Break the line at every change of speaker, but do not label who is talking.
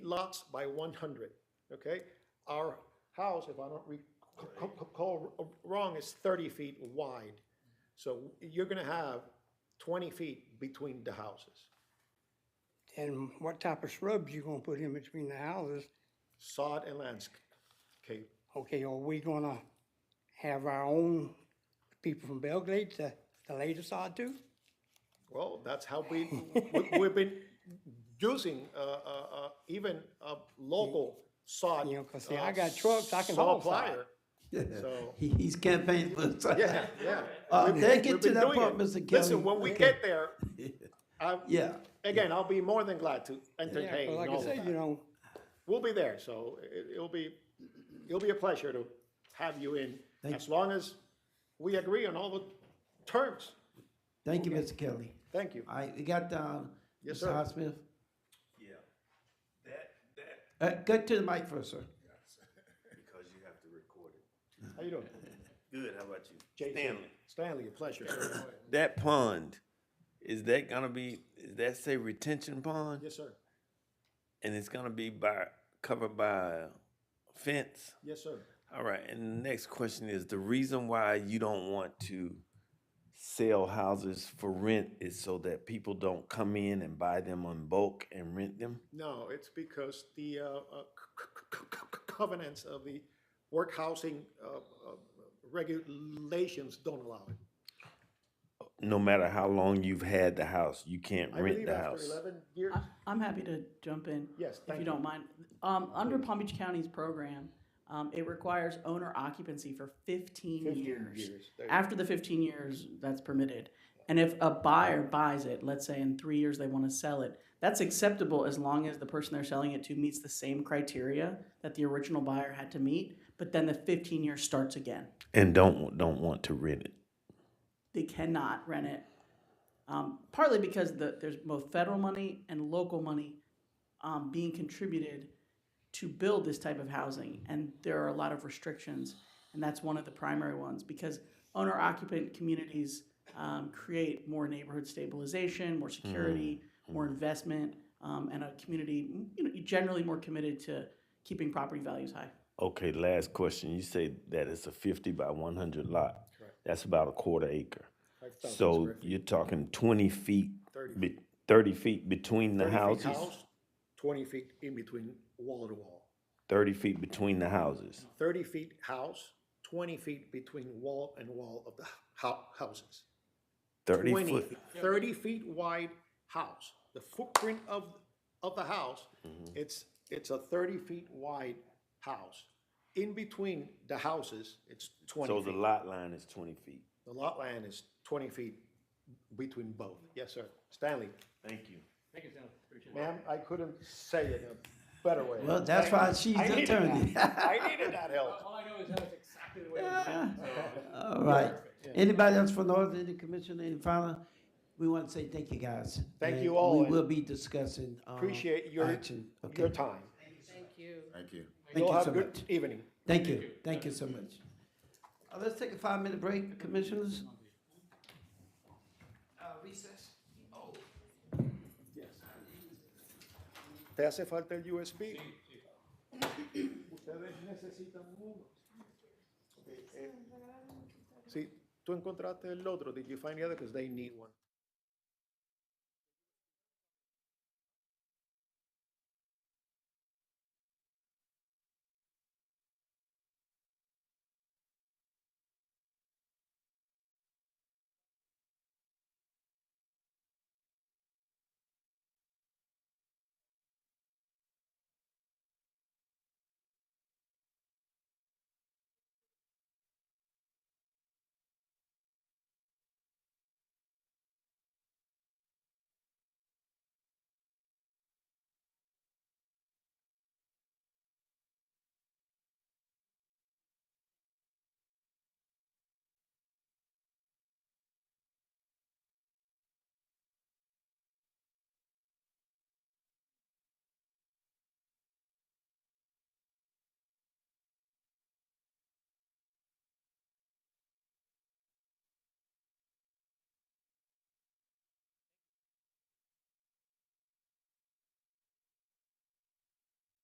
lots by 100, okay? Our house, if I don't recall wrong, is 30 feet wide. So you're going to have 20 feet between the houses.
And what type of shrubs you gonna put in between the houses?
Sod and landscape.
Okay, are we gonna have our own people from Belgrade to, to lay the sod to?
Well, that's how we, we- we've been using uh, uh, uh, even a local sod.
You know, 'cause see,
uh,
I got trucks, I can haul
saw
sod.
plier. So-
He- He's campaigning for the
Yeah, yeah.
Uh,
We've-
they get
we've
to
been
that
doing
part,
it.
Mr. Kelly.
Listen, when we
Okay.
get there, I-
Yeah,
again, I'll be more than glad to
Yeah,
entertain
'cause like
all
I
of
said,
that.
you know,
We'll be there, so it, it'll be, it'll be a pleasure to have you in,
Thank
as long as we agree on all the terms.
thank you, Mr. Kelly.
Thank you.
All right, we got, uh,
Yes,
Mr.
sir.
Highsmith.
Yeah, that, that,
Uh, go to the mic first, sir.
because you have to record it.
How you doing?
Good, how about you?
Jason?
Stanley.
Stanley, a pleasure. sir.
That pond, is that gonna be, is that say retention pond?
Yes, sir.
And it's gonna be by, covered by fence?
Yes, sir.
All right, and the next question is, the reason why you don't want to sell houses for rent is so that people don't come in and buy them on bulk and rent them?
No, it's because the uh, uh, c- c- c- c- covenants of the work housing uh, uh, regulations don't allow it.
No matter how long you've had the house, you can't
I
rent
believe
the
after
house.
eleven years,
I'm happy to jump in.
Yes,
If
thank
you
you.
don't mind. Um, under Palm Beach County's program, um, it requires owner occupancy for fifteen
15
years.
years, there you go.
After the fifteen years, that's permitted. And if a buyer buys it, let's say in three years they want to sell it, that's acceptable as long as the person they're selling it to meets the same criteria that the original buyer had to meet, but then the fifteen years starts again.
And don't, don't want to rent it.
They cannot rent it. Um, partly because the, there's both federal money and local money um, being contributed to build this type of housing. And there are a lot of restrictions, and that's one of the primary ones because owner occupant communities um, create more neighborhood stabilization, more security, more investment, um, and a community you know, generally more committed to keeping property values high.
Okay, last question. You say that it's a fifty by one hundred lot. That's about a quarter acre. So you're talking twenty feet, be- thirty feet between the
30 feet
houses?
house, Twenty feet in between wall to wall.
Thirty feet between the houses.
Thirty feet house, twenty feet between wall and wall of the hou- houses.
Thirty
20
foot.
30 feet wide house, the footprint of, of the house,
Mm-hmm.
it's, it's a thirty feet wide house. In between the houses, it's
So
twenty
the
feet.
lot line is twenty feet.
The lot line is twenty feet between both. Yes, sir. Stanley,
Thank you.
ma'am, I couldn't say it in a better way.
Well, that's why she's
I
the
needed that.
attorney.
I needed that help.
All I know is that was exactly the way it was.
All right. Anybody else from the Northern Indian Commission, any final? We want to say thank you, guys.
Thank
And
you all,
We
and
will be discussing. uh,
Appreciate your,
action.
your
Okay.
time.
Thank
You'll
you
have a
so
good
much.
evening.
Thank you. Thank you so much. Uh, Let's take a five-minute break, commissioners.
¿Te hace falta el USB? Ustedes necesitan uno. Sí, tú encontraste el otro. Did you find the other? Because they need one.